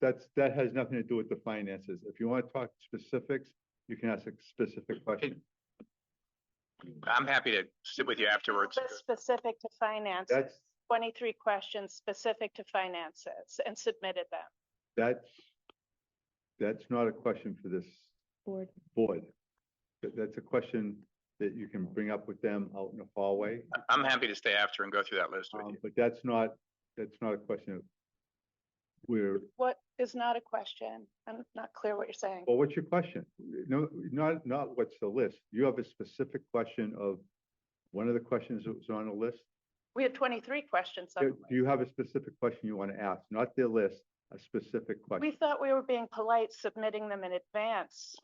that's, that has nothing to do with the finances. If you want to talk specifics, you can ask a specific question. I'm happy to sit with you afterwards. That's Specific to finances, That's, twenty-three questions specific to finances and submitted them. that's, that's not a question for this board. board. That, that's a question that you can bring up with them out in the hallway. I'm happy to stay after and go through that list with Um, you. but that's not, that's not a question of where, What is not a question? I'm not clear what you're saying. well, what's your question? No, not, not what's the list. You have a specific question of one of the questions that was on the list? We had twenty-three questions. on Do the do you have a specific question you want to ask? Not their list, a specific We question. thought we were being polite submitting them in advance.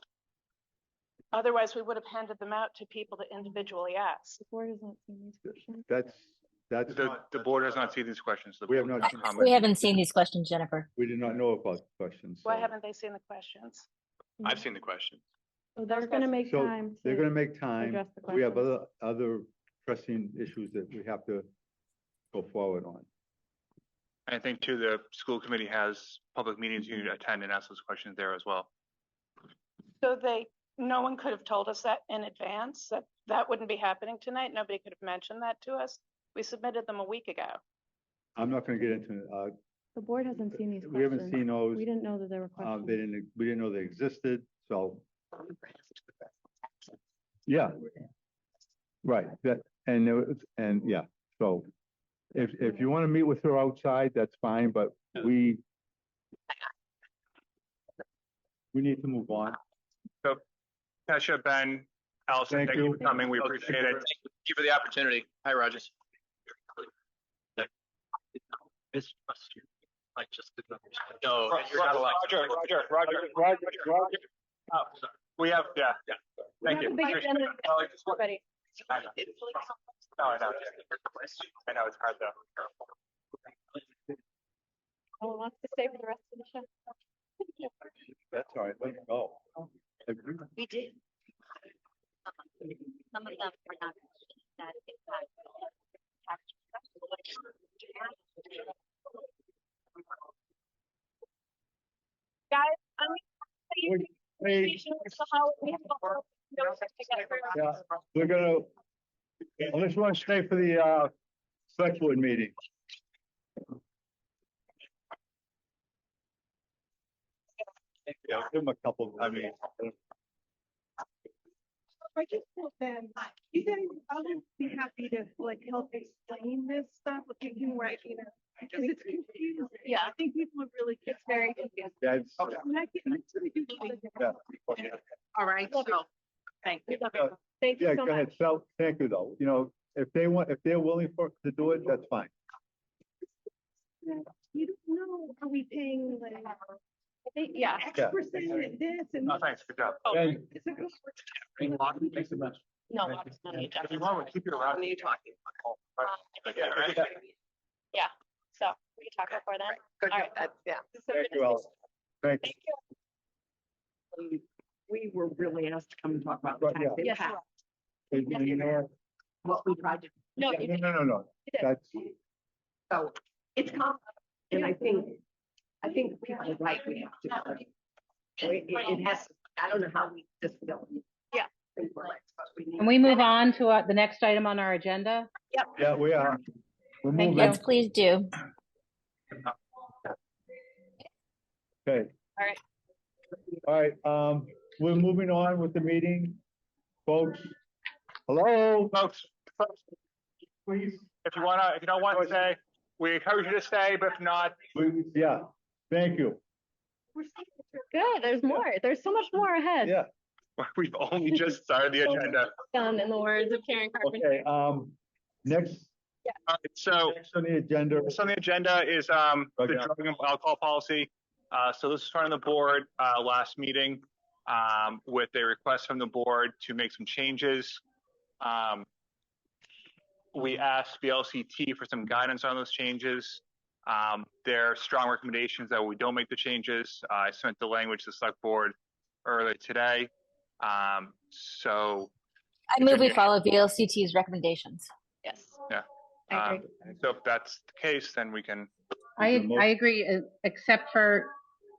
Otherwise, we would have handed them out to people to individually ask. The board has not seen these questions. That's, that's The, not- the board has not seen these questions. The We have board not can seen comment. We haven't seen these questions, Jennifer. We did not know about the questions. Why so haven't they seen the questions? I've seen the question. So They're gonna make So time. They're going to to- make time. address the We have other, questions. other pressing issues that we have to go forward on. I think too, the school committee has public meetings you need to attend and ask those questions there as well. So they, no one could have told us that in advance, that that wouldn't be happening tonight. Nobody could have mentioned that to us. We submitted them a week ago. I'm not going to get into, uh, The board hasn't seen these questions. we haven't seen those. We didn't know that there were Uh, they questions. didn't, we didn't know they existed, so. Yeah. Right, that, and, it was- and, yeah, so if, if you want to meet with her outside, that's fine, but we we need to move on. Tasha, Ben, Allison, Thank thank you you. for coming. We appreciate it. Oh, you for the opportunity. Hi, Rogers. I just didn't understand. No, you're not allowed. Roger, Roger, Roger, Roger, Roger. We have, yeah, yeah. Thank you. Appreciate it. Well, I just want- I know. No, I know. I know, it's hard though. wants to stay for the rest of the show. That's all right, let me go. We did. Some of them were not that impact. Hey, we're gonna, unless you want to stay for the, uh, select board meeting. Yeah, give them a couple, I mean. I just thought then, you guys, I would be happy to like help explain this stuff, like you can write, you know, because it's confusing. Yeah. I think people are really, it's very confusing. That's, And I can- I can do this. Yeah. All right, so, thank you. Thank yeah, you so go much. ahead, so, thank you though, you know, if they want, if they're willing for, to do it, that's fine. You don't know, are we paying like? yeah. X Yeah. percent of this and. No, thanks, good job. And It's like, oh, Thanks so much. No, Thank it's you. not me, If you Jeff. want, we'll keep you around. Me talking. Yeah, right. So, we can talk before then. Good, All right. that- yeah. Thank you all. Thank you. we were really asked to come and talk about the Right, tax yeah. Yes, impact, You know, what we tried to, no, yeah, you No, no, no, no, that's, so it's complicated. And I think, I think we are right, we have to. It, it- it has, I don't know how we just feel. Yeah. Think we're right, but we need- Can we move on to uh, the next item on our agenda? yeah, we are. We're Thank moving, Let's please do. okay. All right. All right, um, we're moving on with the meeting, folks. Hello? Folks, folks, Please. if you wanna, if you don't want to stay, we encourage you to stay, but if not, We, yeah, thank you. we're seeing it. Good, there's more. There's so much more ahead. Yeah. we've only just started the agenda. Done um, in the words of Karen Carpenter. Okay, um, next, All right, So, next on the agenda, next on the agenda is, um, the Okay. drug and alcohol policy. Uh, so this is front of the board, uh, last meeting, um, with a request from the board to make some changes. Um, we asked BLCT for some guidance on those changes. Um, there are strong recommendations that we don't make the changes. Uh, I sent the language to the select board earlier today. Um, so, I move we follow VLCT's recommendations. yes. I agree. um, so if that's the case, then we can I, Is there a mo- I agree, uh, except for